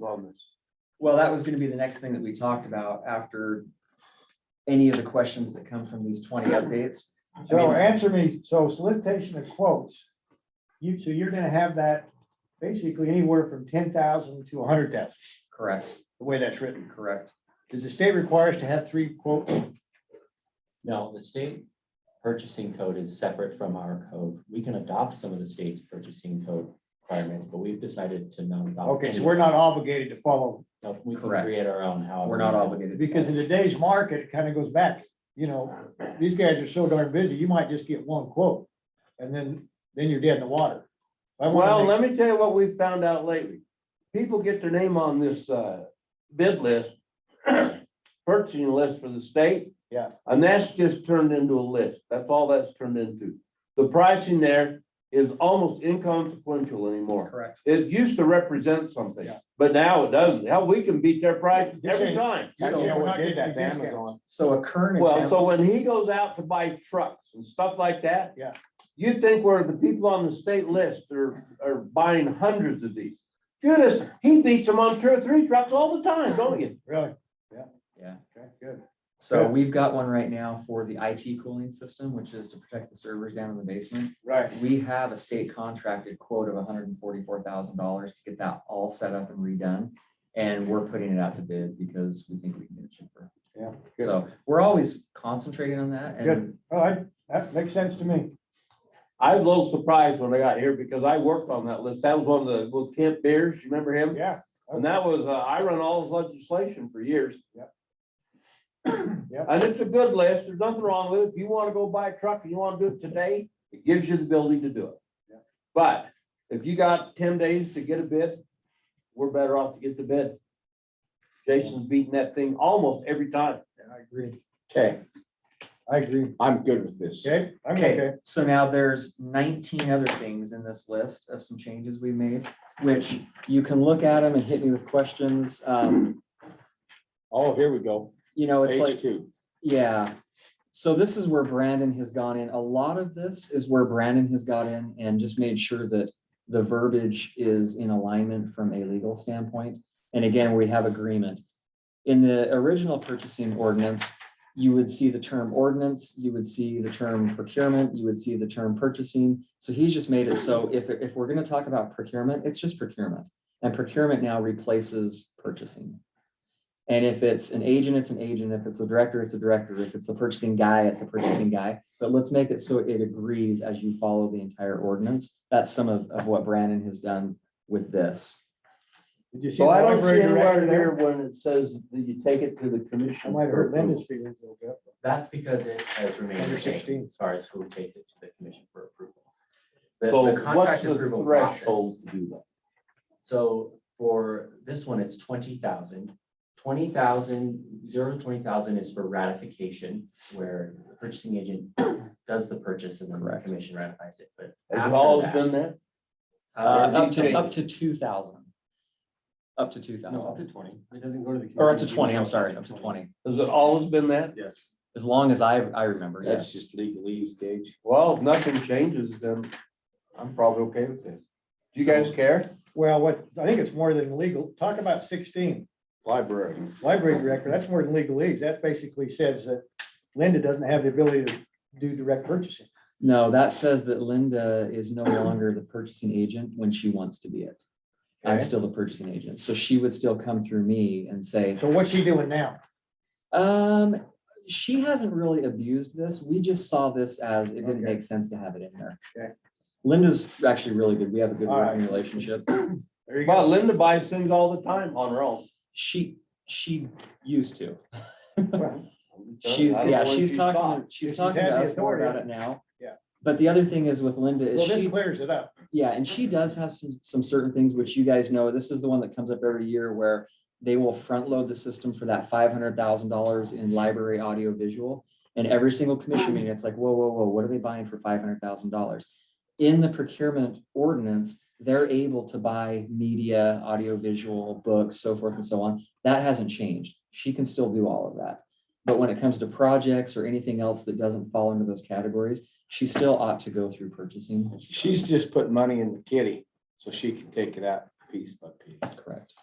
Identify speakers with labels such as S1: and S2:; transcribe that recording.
S1: wellness.
S2: Well, that was gonna be the next thing that we talked about after any of the questions that come from these twenty updates.
S1: So answer me, so solicitation of quotes, you, so you're gonna have that basically anywhere from ten thousand to a hundred thousand,
S2: Correct,
S1: the way that's written.
S2: correct.
S1: Does the state require us to have three quotes?
S3: No, the state purchasing code is separate from our code. We can adopt some of the state's purchasing code requirements, but we've decided to not adopt.
S1: Okay, so
S3: any.
S1: we're not obligated to follow,
S3: No, we can
S2: Correct.
S3: create our own, however.
S2: We're not
S3: we feel.
S2: obligated.
S1: because in today's market, it kind of goes back, you know, these guys are so darn busy, you might just get one quote. And then, then you're dead in the water. I wanna
S4: Well,
S1: make-
S4: let me tell you what we've found out lately. People get their name on this uh, bid list, purchasing list for the state.
S1: Yeah.
S4: And that's just turned into a list. That's all that's turned into. The pricing there is almost inconsequential anymore.
S2: Correct.
S4: It used to represent something,
S1: Yeah.
S4: but now it doesn't. Hell, we can beat their price
S1: You're
S4: every
S1: saying-
S4: time.
S1: That's
S2: So-
S1: how we did that to Amazon.
S2: So a current
S4: Well,
S2: example,
S4: so when he goes out to buy trucks and stuff like that.
S1: Yeah.
S4: You'd think where the people on the state list are, are buying hundreds of these. Judas, he beats them on two or three trucks all the time, don't you?
S1: Really?
S2: yeah.
S1: Okay, good.
S2: So we've got one right now for the IT cooling system, which is to protect the servers down in the basement.
S1: Right.
S2: We have a state contracted quote of hundred and forty-four thousand dollars to get that all set up and redone. And we're putting it out to bid because we think we can get it cheaper.
S1: Yeah, good.
S2: So we're always concentrating on that and
S1: Good. All right, that makes sense to me.
S4: I was a little surprised when I got here because I worked on that list. That was one of the, well, Kent Beers, you remember him?
S1: Yeah,
S4: And that was, uh, I run all his legislation for years.
S1: Yep. Yep.
S4: And it's a good list. There's nothing wrong with it. If you want to go buy a truck and you want to do it today, it gives you the ability to do it.
S1: Yep.
S4: But if you got ten days to get a bid, we're better off to get the bid. Jason's beating that thing almost every time.
S1: I agree.
S5: Okay,
S1: I agree.
S5: I'm good with this.
S1: Okay, I'm
S2: Okay,
S1: okay.
S2: so now there's nineteen other things in this list of some changes we made, which you can look at them and hit me with questions. Um,
S5: Oh, here we go.
S2: you know, it's like.
S5: Page two.
S2: Yeah, so this is where Brandon has gone in. A lot of this is where Brandon has got in and just made sure that the verbiage is in alignment from a legal standpoint. And again, we have agreement. In the original purchasing ordinance, you would see the term ordinance, you would see the term procurement, you would see the term purchasing. So he's just made it so if, if we're gonna talk about procurement, it's just procurement. And procurement now replaces purchasing. And if it's an agent, it's an agent. If it's a director, it's a director. If it's the purchasing guy, it's a purchasing guy. But let's make it so it agrees as you follow the entire ordinance. That's some of, of what Brandon has done with this.
S1: Did you see
S4: So
S1: the
S4: I don't see
S1: library
S4: anywhere
S1: director
S4: here
S1: there?
S4: when it says that you take it to the commission.
S1: I might have
S4: for
S1: hurt Linda's
S4: approval.
S1: feelings a little bit.
S3: That's because it has remained
S1: Under
S3: the
S1: 16.
S3: same as far as who takes it to the commission for approval. The-
S4: So
S3: The
S4: what's
S3: contract
S4: the
S3: approval process.
S4: threshold to do that?
S3: So for this one, it's twenty thousand. Twenty thousand, zero to twenty thousand is for ratification, where the purchasing agent does the purchase and then the
S2: Correct.
S3: commission ratifies it, but.
S4: Has it
S3: after
S4: always
S3: that-
S4: been that?
S2: Uh,
S3: Uh,
S2: up to, up to two thousand. Up to two
S3: no, up to
S2: thousand,
S3: twenty, it doesn't go to the.
S2: or up to
S3: commission.
S2: twenty, I'm sorry, up to twenty,
S4: Has it always been that?
S3: Yes.
S2: as long as I, I remember,
S5: That's
S2: yes.
S5: just legalese, Gage.
S4: Well, if nothing changes, then I'm probably okay with this. Do you guys care?
S1: Well, what, I think it's more than legal. Talk about sixteen,
S5: Library.
S1: library director, that's more than legalese. That basically says that Linda doesn't have the ability to do direct purchasing.
S2: No, that says that Linda is no longer the purchasing agent when she wants to be it. I'm
S4: Okay.
S2: still the purchasing agent, so she would still come through me and say,
S1: So what's she doing now?
S2: Um, she hasn't really abused this. We just saw this as it didn't make sense to have it in there.
S1: Okay.
S2: Linda's actually really good. We have a good
S1: All right.
S2: working relationship.
S1: There you
S4: Well,
S1: go.
S4: Linda buys things all the time on her own.
S2: She, she used to.
S1: Well,
S2: She's,
S4: I don't
S2: yeah,
S4: know if
S2: she's
S4: you
S2: talking,
S4: thought.
S2: she's
S1: She's
S2: talking
S1: had
S2: to
S1: the
S2: us more about
S1: authority.
S2: it now.
S1: Yeah.
S2: But the other thing is with Linda is
S1: Well,
S2: she.
S1: this clears it up.
S2: Yeah, and she does have some, some certain things which you guys know, this is the one that comes up every year where they will front load the system for that five hundred thousand dollars in library audio visual. And every single commission meeting, it's like, whoa, whoa, whoa, what are they buying for five hundred thousand dollars? In the procurement ordinance, they're able to buy media, audio visual, books, so forth and so on. That hasn't changed. She can still do all of that. But when it comes to projects or anything else that doesn't fall into those categories, she still ought to go through purchasing.
S5: She's just put money in the kitty so she can take it out piece by piece.
S2: Correct.